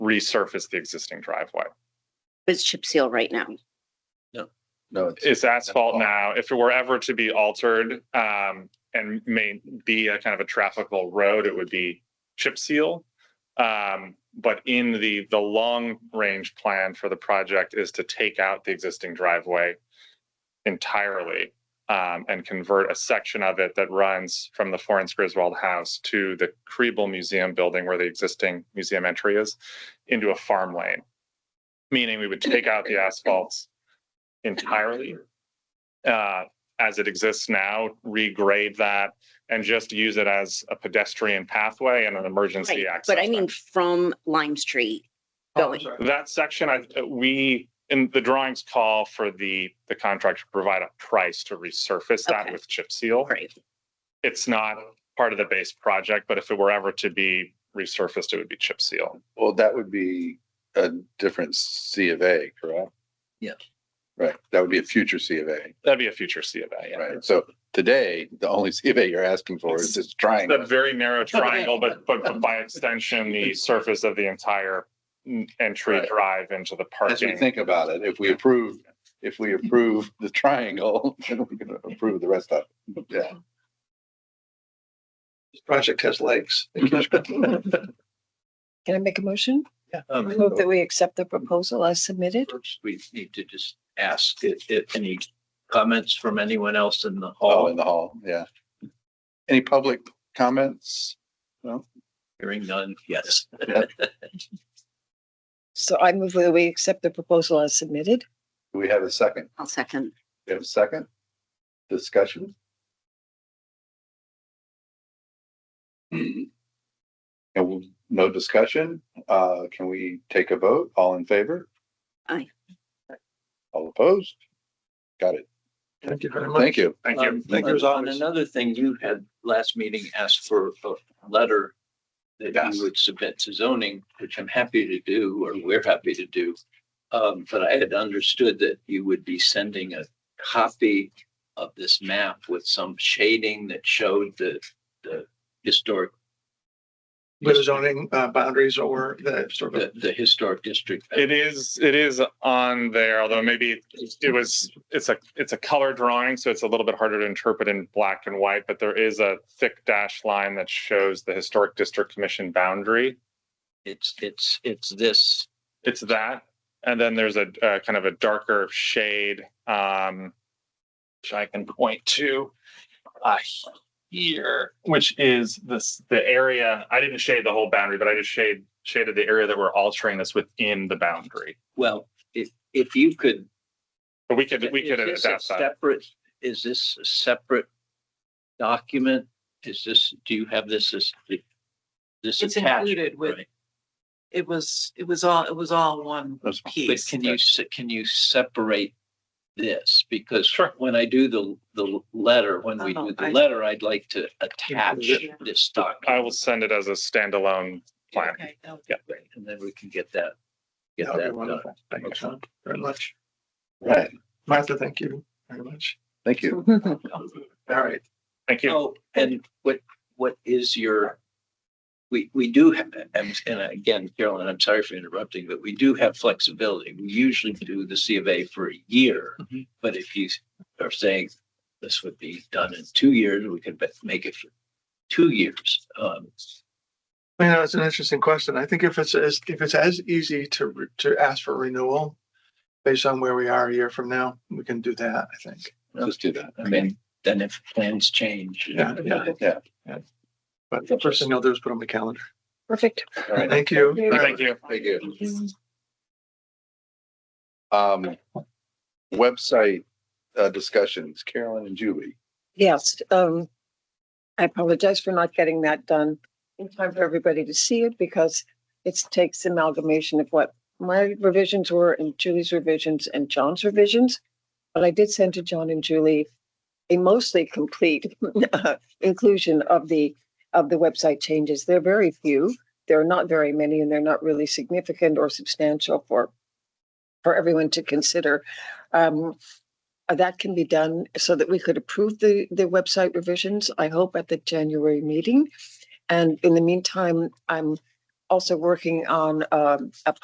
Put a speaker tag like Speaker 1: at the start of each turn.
Speaker 1: resurface the existing driveway.
Speaker 2: It's chip seal right now.
Speaker 3: No, it's,
Speaker 1: It's asphalt
Speaker 3: Asphalt.
Speaker 1: now. If it were ever to be altered, um, and may be a kind of a trafficable road, it would be chip seal. Um, but in the, the long range plan for the project is to take out the existing driveway entirely, um, and convert a section of it that runs from the Florence Griswold House to the Kriebel Museum building where the existing museum entry is into a farm lane. Meaning we would take out the asphalts entirely uh, as it exists now, regrade that and just use it as a pedestrian pathway and an emergency
Speaker 2: Right,
Speaker 1: access.
Speaker 2: But I mean, from Lime Street
Speaker 4: Oh,
Speaker 2: going,
Speaker 1: road. That section, I, uh, we, in the drawings call for the, the contract to provide a price to resurface that
Speaker 2: Okay.
Speaker 1: with chip seal.
Speaker 2: great,
Speaker 1: It's not part of the base project, but if it were ever to be resurfaced, it would be chip seal.
Speaker 3: well, that would be a different C of A, correct?
Speaker 4: Yeah.
Speaker 3: Right, that would be a future C of A,
Speaker 1: That'd be a future C of A. yeah.
Speaker 3: right? So today, the only C of A you're asking for is this triangle.
Speaker 1: That very narrow triangle, but, but but by extension, the surface of the entire mm, entry
Speaker 3: Right.
Speaker 1: drive into the
Speaker 3: As we
Speaker 1: parking.
Speaker 3: think about it, if we approve, if we approve the triangle, then we're gonna approve the rest of it, yeah. This project has legs.
Speaker 5: Can I make a motion? I
Speaker 4: Um,
Speaker 5: Move that we accept the proposal as submitted?
Speaker 4: first We need to just ask if, if any comments from anyone else in the
Speaker 3: Oh,
Speaker 4: hall,
Speaker 3: in the hall, yeah. Any public comments?
Speaker 4: hearing none, yes.
Speaker 5: So I move that we accept the proposal as submitted.
Speaker 3: Do we have a second?
Speaker 2: I'll second.
Speaker 3: We have a second? Discussion? And we'll- no discussion, uh, can we take a vote? All in favor?
Speaker 2: Aye.
Speaker 3: All opposed? Got it.
Speaker 4: Thank you very
Speaker 3: Thank you.
Speaker 1: Thank you.
Speaker 4: Um,
Speaker 3: Thank you as
Speaker 4: On
Speaker 3: always.
Speaker 4: another thing, you had last meeting asked for a letter that
Speaker 3: Yes.
Speaker 4: you would submit to zoning, which I'm happy to do, or we're happy to do. Um, but I had understood that you would be sending a copy of this map with some shading that showed the, the historic,
Speaker 6: with the zoning uh, boundaries or the sort of,
Speaker 4: the, the historic district.
Speaker 1: It is, it is on there, although maybe it was, it's a, it's a color drawing, so it's a little bit harder to interpret in black and white, but there is a thick dash line that shows the Historic District Commission boundary.
Speaker 4: It's, it's, it's this,
Speaker 1: It's that, and then there's a, uh kind of a darker shade, um, which I can point to, uh, here, which is this, the area, I didn't shade the whole boundary, but I just shade, shaded the area that we're altering that's within the boundary.
Speaker 4: well, if, if you could
Speaker 1: But we could, we could
Speaker 4: Is this a
Speaker 1: adapt that.
Speaker 4: Separate, is this a separate document? Is this, do you have this as? This
Speaker 7: It's
Speaker 4: attached,
Speaker 7: included with-
Speaker 4: right?
Speaker 7: it was, it was all, it was all one
Speaker 3: That's-
Speaker 4: But
Speaker 7: piece.
Speaker 4: can you, se- can you separate this? Because when I do the, the letter, when we do
Speaker 7: Oh,
Speaker 4: the
Speaker 7: I-
Speaker 4: letter, I'd like to attach
Speaker 7: Yeah.
Speaker 4: this document.
Speaker 1: I will send it as a standalone plan.
Speaker 7: Okay, that would be
Speaker 1: Yeah.
Speaker 7: great.
Speaker 4: And then we can get that, get
Speaker 6: that would be
Speaker 4: that done.
Speaker 6: wonderful. Thank you Tom, very much.
Speaker 3: Right,
Speaker 6: Martha, thank you very much.
Speaker 3: thank you.
Speaker 6: All right.
Speaker 1: Thank you.
Speaker 4: Oh, and what, what is your, we, we do, have and, and again, Carolyn, I'm sorry for interrupting, but we do have flexibility. We usually do the C of A for a year.
Speaker 6: Mhm.
Speaker 4: But if you are saying this would be done in two years, we could bet- make it for two years. Um,
Speaker 6: You know, it's an interesting question. I think if it's as, if it's as easy to, re- to ask for renewal based on where we are a year from now, we can do that, I think.
Speaker 3: Let's do that.
Speaker 4: I mean, then if plans change.
Speaker 6: Yeah, yeah.
Speaker 3: Yeah.
Speaker 6: But the first thing I'll do is put on the calendar.
Speaker 5: Perfect.
Speaker 3: All right.
Speaker 6: Thank you.
Speaker 1: Thank you.
Speaker 3: Thank you. Um, website, uh, discussions, Carolyn and Julie.
Speaker 5: Yes, um, I apologize for not getting that done in time for everybody to see it because it takes amalgamation of what my revisions were and Julie's revisions and John's revisions. But I did send to John and Julie a mostly complete inclusion of the, of the website changes. They're very few. There are not very many and they're not really significant or substantial for, for everyone to consider. Um, uh, that can be done so that we could approve the, the website revisions, I hope at the January meeting. And in the meantime, I'm also working on um, a